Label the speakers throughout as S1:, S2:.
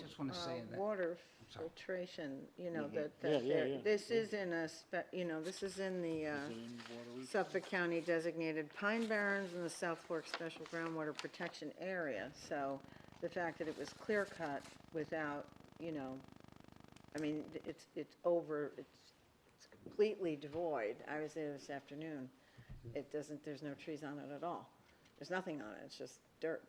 S1: just want to
S2: uh,
S1: say that.
S2: water
S1: sorry. Mm-hmm.
S2: filtration, you know,
S3: Mhm.
S2: that,
S3: Yeah,
S2: that,
S3: yeah,
S2: there-
S3: yeah,
S2: this is in a, spe- you know, this is in the uh, Suffolk County designated pine barrens and the South Fork Special Groundwater Protection Area, so the fact that it was clear cut without, you know, I mean, it's, it's over, it's it's completely devoid, I was there this afternoon, it doesn't, there's no trees on it at all, there's nothing on it, it's just dirt.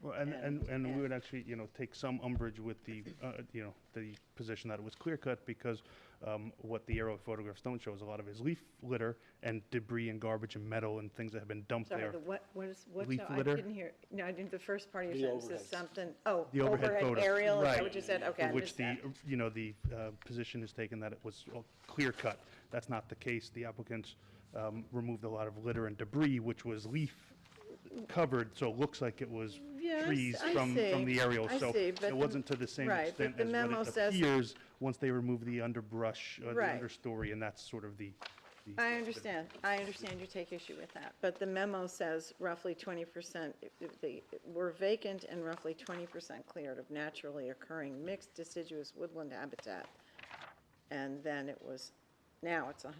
S4: Well, and,
S2: And-
S4: and, and
S2: yeah.
S4: we would actually, you know, take some umbrage with the, uh, you know, the position that it was clear cut because um, what the aerial photographs don't show is a lot of his leaf litter and debris and garbage and metal and things that have been dumped
S2: Sorry,
S4: there.
S2: the what, what is, what's,
S4: Leaf
S2: the- I
S4: litter?
S2: didn't hear, no, I didn't, the first part of
S3: The
S2: your sentence is
S3: overheads.
S2: something, oh,
S4: The overhead
S2: overhead
S4: photo,
S2: aerial, is that
S4: right,
S2: what you said? Okay,
S4: For
S2: I
S4: which
S2: missed
S4: the,
S2: that.
S4: uh, you know, the uh, position is taken that it was clear cut. That's not the case. The applicants um, removed a lot of litter and debris, which was leaf covered, so it looks like it was
S2: Yeah, I s-
S4: trees
S2: I
S4: from, from
S2: see.
S4: the aerial.
S2: I
S4: So
S2: see, but
S4: it
S2: the-
S4: wasn't to the same
S2: right, but
S4: extent
S2: the
S4: as
S2: memo
S4: what it
S2: says-
S4: appears once they remove the underbrush, uh, the
S2: Right.
S4: understory, and that's sort of the. the-
S2: I understand, I understand you take issue with that, but the memo says roughly twenty percent, the, were vacant and roughly twenty percent cleared of naturally occurring mixed deciduous woodland habitat. And then it was, now it's a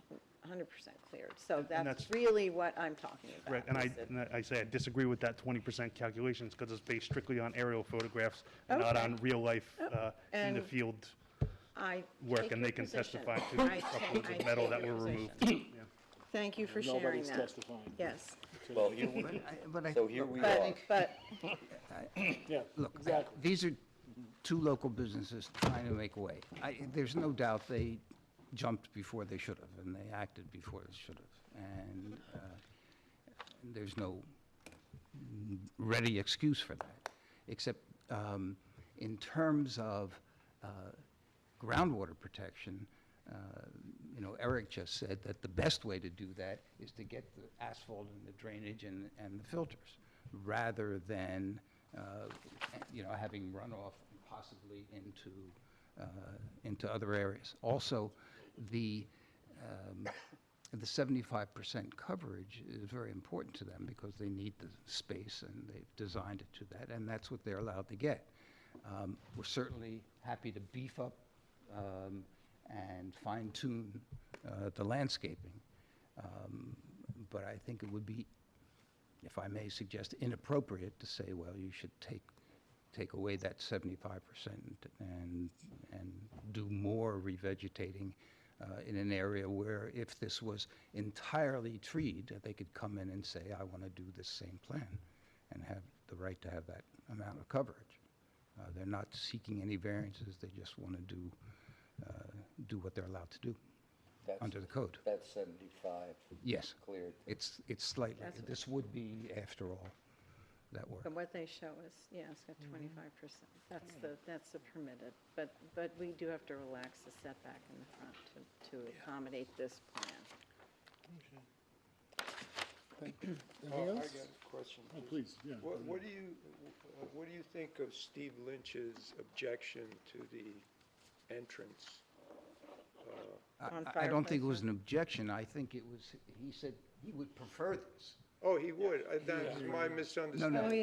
S2: hundred percent cleared, so
S4: and
S2: that's
S4: that's-
S2: really what I'm talking about.
S4: Right, and I,
S2: is that-
S4: and I- I say I disagree with that twenty percent calculations, because it's based strictly on aerial photographs, and not
S2: Okay. Oh,
S4: on real life, uh, in the
S2: And-
S4: field
S2: I
S4: work,
S2: take
S4: and
S2: your
S4: they can
S2: position.
S4: testify to
S2: I
S4: the
S2: ta-
S4: truckloads
S2: I
S4: of metal
S2: take
S4: that
S2: your
S4: were removed.
S2: position. Thank you for sharing
S3: Nobody's
S2: that.
S3: testifying.
S2: Yes,
S5: Well,
S1: But I- but I-
S5: so here we
S1: but I
S5: are.
S1: think-
S2: but,
S3: Yeah,
S1: Look,
S3: exactly.
S1: these are two local businesses trying to make a way. I, there's no doubt they jumped before they should have, and they acted before they should have. And uh, there's no ready excuse for that, except um, in terms of uh, groundwater protection, uh, you know, Eric just said that the best way to do that is to get the asphalt and the drainage and, and the filters, rather than, uh, you know, having runoff possibly into, uh, into other areas. Also, the, um, the seventy-five percent coverage is very important to them because they need the space and they've designed it to that, and that's what they're allowed to get. Um, We're certainly happy to beef up um, and fine-tune uh, the landscaping. Um, But I think it would be, if I may suggest, inappropriate to say, well, you should take, take away that seventy-five percent and, and do more revegetating uh, in an area where if this was entirely treed, they could come in and say, I want to do this same plan and have the right to have that amount of coverage. Uh, They're not seeking any variances, they just want to do, uh, do what they're allowed to do
S5: That's-
S1: under the code.
S5: That's 75.
S1: Yes.
S5: Cleared.
S1: It's, it's slightly,
S2: That's what-
S1: this would be, after all, that work.
S2: but what they show is, yeah, it's got
S4: Mm-hmm.
S2: twenty-five percent. That's the, that's the permitted, but, but we do have to relax the setback in the front to, to accommodate this plan.
S6: Anything else? I got a question.
S3: Oh, please, yeah.
S6: What, what do you, uh, what do you think of Steve Lynch's objection to the entrance?
S1: I-
S2: On
S1: I I don't think it
S2: fireplace,
S1: was an objection, I think it was, he said he would prefer this.
S6: Oh, he would, Uh, that's my
S2: Oh,
S6: misunderstanding, sorry.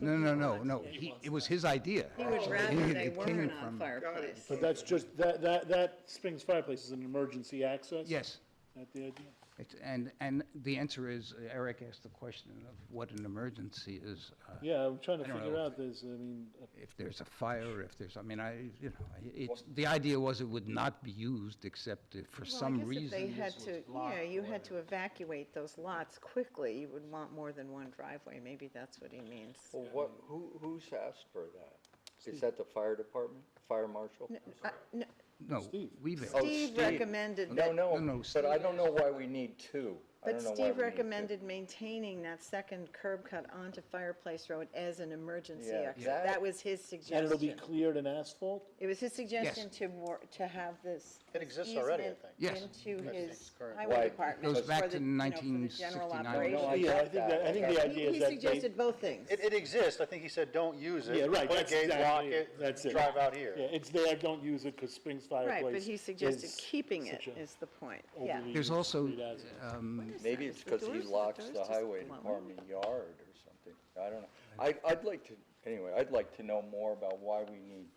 S1: No, no, no, no, he- it was his idea.
S2: He would
S1: actually.
S2: rather
S1: It
S2: they
S1: came
S2: weren't on
S1: from-
S2: fireplace.
S3: But that's just, that, that, that Springs Fireplace is an emergency access?
S1: Yes,
S3: That the idea?
S1: It's- and, and the answer is, Eric asked the question of what an emergency is. uh,
S3: Yeah, I'm trying to
S1: I don't
S3: figure
S1: know.
S3: out this, I mean, uh,
S1: If there's a fire, if there's, I mean, I, you know, I- it's, the idea was it would not be used except if for
S2: Well, I
S1: some
S2: guess if
S1: reason.
S2: They
S1: this
S2: had
S1: was
S2: to, yeah,
S1: blocked
S2: you
S1: or-
S2: had to evacuate those lots quickly. You would want more than one driveway. Maybe that's what he means.
S5: Well, what, who, who's asked for that? Is that the fire department, fire marshal?
S2: N- I- n-
S1: No,
S3: Steve.
S1: we've,
S5: Oh,
S2: Steve
S5: Steve.
S2: recommended
S5: No,
S2: that,
S1: No, no,
S5: no, but I
S1: Steve
S5: don't know why we need two.
S2: but
S5: I don't know why
S2: Steve
S5: we need two.
S2: recommended maintaining that second curb cut onto Fireplace Road as an emergency
S5: Yeah,
S2: exit.
S5: that-
S2: That was his
S3: and it'll be
S2: suggestion.
S3: cleared in asphalt?
S2: It was his suggestion to war, to have this
S7: It exists already, I
S2: easement
S7: think.
S1: Yes.
S2: Into his
S5: Why?
S2: highway department.
S1: Goes
S2: for
S1: back
S2: the,
S1: to
S2: you know, for the general
S1: 1969.
S2: operation.
S5: No, I
S3: Yeah, I
S5: got
S3: think
S5: that,
S3: that, I think the
S2: He-
S3: idea is
S2: He
S3: that they,
S2: suggested both things.
S7: It, it exists, I think he said, don't use it.
S3: Yeah, right,
S7: Put a
S3: that's
S7: gate,
S3: exactly
S7: lock
S3: it,
S7: it,
S3: that's it.
S7: drive out here.
S3: yeah, it's there, don't use it, because Springs Fireplace.
S2: Right, but he suggested
S3: is
S2: keeping it
S3: such a
S2: is the point, yeah.
S3: overly
S1: There's also,
S3: discreet asset.
S1: um,
S5: Maybe it's because he locks the highway department yard or something. I don't know. I, I'd like to, anyway, I'd like to know more about why we need